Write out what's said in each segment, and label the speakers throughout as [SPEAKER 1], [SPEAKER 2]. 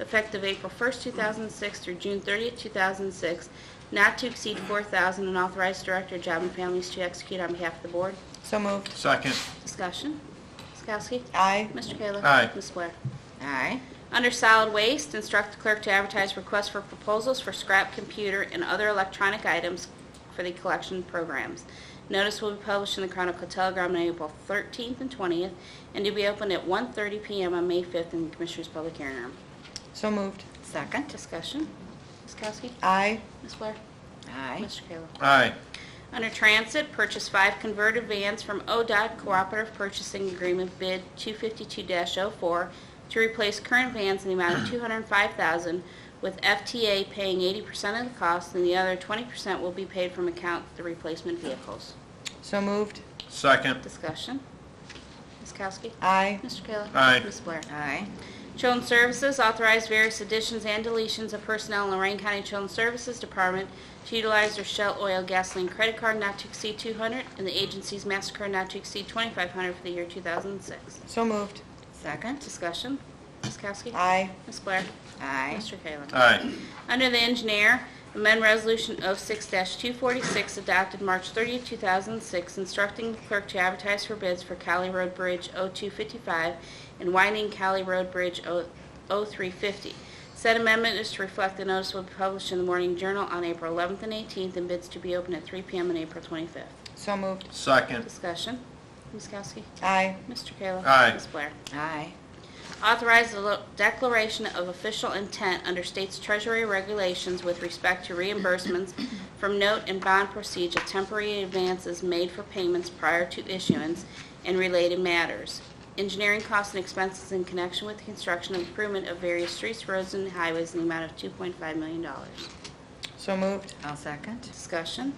[SPEAKER 1] effective April 1st, 2006 through June 30th, 2006, not to exceed 4000 and authorize Director of Job and Families to execute on behalf of the Board.
[SPEAKER 2] So moved.
[SPEAKER 3] Second.
[SPEAKER 1] Discussion. Ms. Kowski?
[SPEAKER 2] Aye.
[SPEAKER 1] Mr. Kayla?
[SPEAKER 3] Aye.
[SPEAKER 1] Ms. Blair?
[SPEAKER 2] Aye.
[SPEAKER 1] Under solid waste, instruct the clerk to advertise requests for proposals for scrap computer and other electronic items for the collection programs. Notice will be published in the Chronicle Telegram on April 13th and 20th, and to be opened at 1:30 PM on May 5th in the Commissioners' Public Hearing Room.
[SPEAKER 2] So moved.
[SPEAKER 4] Second.
[SPEAKER 1] Discussion. Ms. Kowski?
[SPEAKER 2] Aye.
[SPEAKER 1] Ms. Blair?
[SPEAKER 4] Aye.
[SPEAKER 1] Mr. Kayla?
[SPEAKER 3] Aye.
[SPEAKER 1] Under Transit, purchase five converted vans from ODOT Cooperative Purchasing Agreement Bid 252-04 to replace current vans in the amount of 205000 with FTA paying 80% of the cost, and the other 20% will be paid from account the replacement vehicles.
[SPEAKER 2] So moved.
[SPEAKER 3] Second.
[SPEAKER 1] Discussion. Ms. Kowski?
[SPEAKER 2] Aye.
[SPEAKER 1] Mr. Kayla?
[SPEAKER 3] Aye.
[SPEAKER 1] Ms. Blair?
[SPEAKER 4] Aye.
[SPEAKER 1] Children's Services authorized various additions and deletions of personnel in Lorraine County Children's Services Department to utilize their Shell Oil Gasoline Credit Card not to exceed 200 and the agency's MasterCard not to exceed 2,500 for the year 2006.
[SPEAKER 2] So moved.
[SPEAKER 4] Second.
[SPEAKER 1] Discussion. Ms. Kowski?
[SPEAKER 2] Aye.
[SPEAKER 1] Ms. Blair?
[SPEAKER 4] Aye.
[SPEAKER 1] Mr. Kayla?
[SPEAKER 3] Aye.
[SPEAKER 1] Under the engineer, amend Resolution 06-246 adopted March 30, 2006, instructing the clerk to advertise for bids for Cali Road Bridge 0255 and winding Cali Road Bridge oh, 0- 0350. Said amendment is to reflect the notice will be published in the Morning Journal on April 11th and 18th, and bids to be open at 3 p.m. on April 25th.
[SPEAKER 2] So moved.
[SPEAKER 3] Second.
[SPEAKER 1] Discussion. Ms. Kowski?
[SPEAKER 2] Aye.
[SPEAKER 1] Mr. Kayla?
[SPEAKER 3] Aye.
[SPEAKER 1] Ms. Blair?
[SPEAKER 4] Aye.
[SPEAKER 1] Authorize the lo- declaration of official intent under state's treasury regulations with respect to reimbursements from note and bond procedure temporary advances made for payments prior to issuance and related matters. Engineering costs and expenses in connection with the construction and improvement of various streets, roads, and highways in the amount of $2.5 million.
[SPEAKER 2] So moved.
[SPEAKER 4] I'll second.
[SPEAKER 1] Discussion.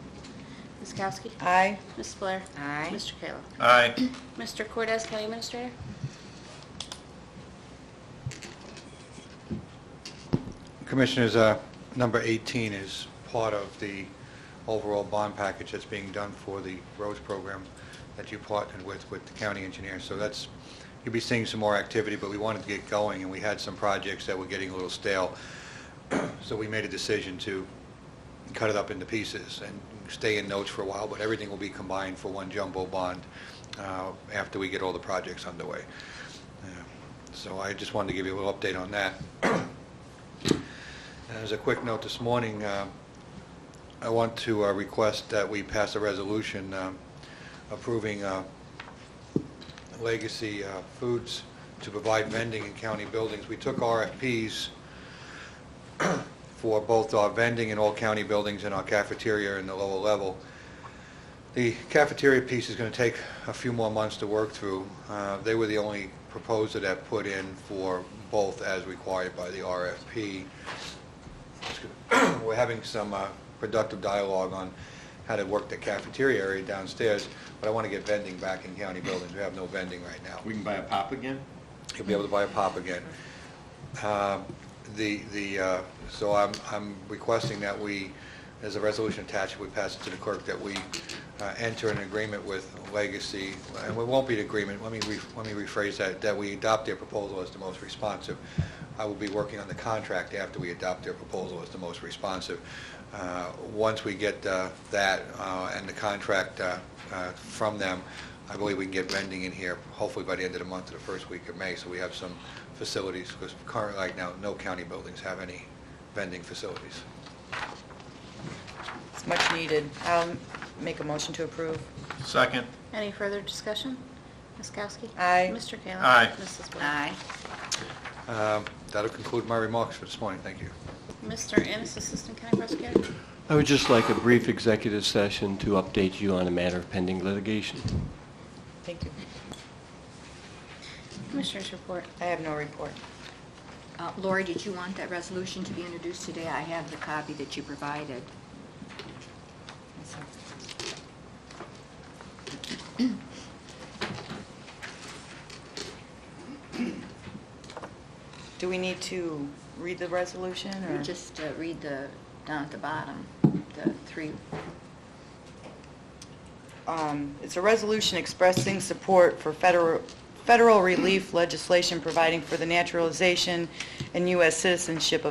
[SPEAKER 1] Ms. Kowski?
[SPEAKER 2] Aye.
[SPEAKER 1] Ms. Blair?
[SPEAKER 4] Aye.
[SPEAKER 1] Mr. Kayla?
[SPEAKER 3] Aye.
[SPEAKER 1] Mr. Cortez, County Administrator?
[SPEAKER 5] Commissioners, uh, number 18 is part of the overall bond package that's being done for the roads program that you partnered with, with the county engineer. So that's, you'll be seeing some more activity, but we wanted to get going, and we had some projects that were getting a little stale. So we made a decision to cut it up into pieces and stay in notes for a while, but everything will be combined for one jumbo bond uh, after we get all the projects underway. Uh, So I just wanted to give you a little update on that. As a quick note this morning, uh, I want to uh, request that we pass a resolution um, approving uh, Legacy uh, Foods to provide vending in county buildings. We took RFPs for both our vending in all county buildings and our cafeteria in the lower level. The cafeteria piece is going to take a few more months to work through. Uh, They were the only proposer that put in for both as required by the RFP. We're having some uh, productive dialogue on how to work the cafeteria area downstairs, but I want to get vending back in county buildings. We have no vending right now
[SPEAKER 3] We can buy a pop again?
[SPEAKER 5] you'll be able to buy a pop again. Uh, The, the, uh, so I'm, I'm requesting that we, as a resolution attached, we pass it to the clerk, that we uh, enter an agreement with Legacy, and it won't be an agreement, let me, re- let me rephrase that, that we adopt their proposal as the most responsive. I will be working on the contract after we adopt their proposal as the most responsive. Uh, Once we get uh, that uh, and the contract uh, uh, from them, I believe we can get vending in here hopefully by the end of the month or the first week of May, so we have some facilities, because currently, right now, no county buildings have any vending facilities.
[SPEAKER 2] It's much needed. I'll make a motion to approve.
[SPEAKER 3] Second.
[SPEAKER 1] Any further discussion? Ms. Kowski?
[SPEAKER 2] Aye.
[SPEAKER 1] Mr. Kayla?
[SPEAKER 3] Aye.
[SPEAKER 1] Mrs. Blair?
[SPEAKER 4] Aye.
[SPEAKER 5] Um, That'll conclude my remarks for this morning. Thank you.
[SPEAKER 1] Mr. Ennis, Assistant County Prosecutor.
[SPEAKER 6] I would just like a brief executive session to update you on a matter of pending litigation.
[SPEAKER 2] Thank you.
[SPEAKER 1] Commissioners report.
[SPEAKER 2] I have no report.
[SPEAKER 4] Uh, Lori, did you want that resolution to be introduced today? I have the copy that you provided.
[SPEAKER 2] Do we need to read the resolution
[SPEAKER 4] You
[SPEAKER 2] or?
[SPEAKER 4] just uh, read the, down at the bottom, the three,
[SPEAKER 2] Um, It's a resolution expressing support for federal, federal relief legislation providing for the naturalization and U.S. citizenship of